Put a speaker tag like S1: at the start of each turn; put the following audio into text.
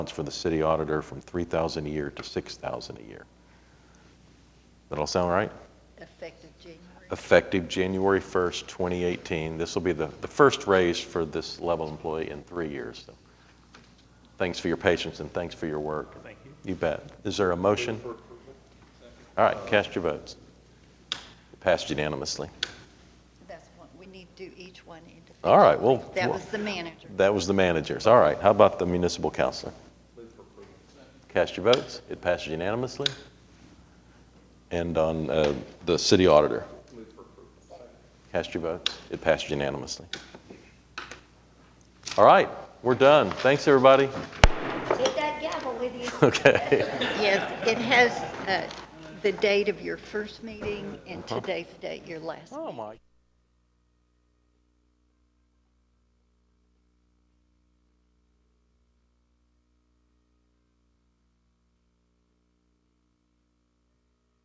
S1: allowance for the city auditor from 3,000 a year to 6,000 a year. That all sound right?
S2: Effective January.
S1: Effective January 1st, 2018. This will be the, the first raise for this level employee in three years. So, Thanks for your patience and thanks for your work. Thank you. You bet. Is there a motion? All right, cast your votes. Passed unanimously.
S2: That's one, we need to do each one individually.
S1: All right, well.
S2: That
S1: well-
S2: was the manager.
S1: That was the managers. All right, how about the municipal counselor? Cast your votes. It passes unanimously. And on uh, the city auditor? Cast your votes. It passes unanimously. All right, we're done. Thanks, everybody.
S3: Take that gavel with you.
S1: Okay.
S2: Yes, it has uh, the date of your first meeting and today's date, your last.
S1: Uh-huh. Oh, my.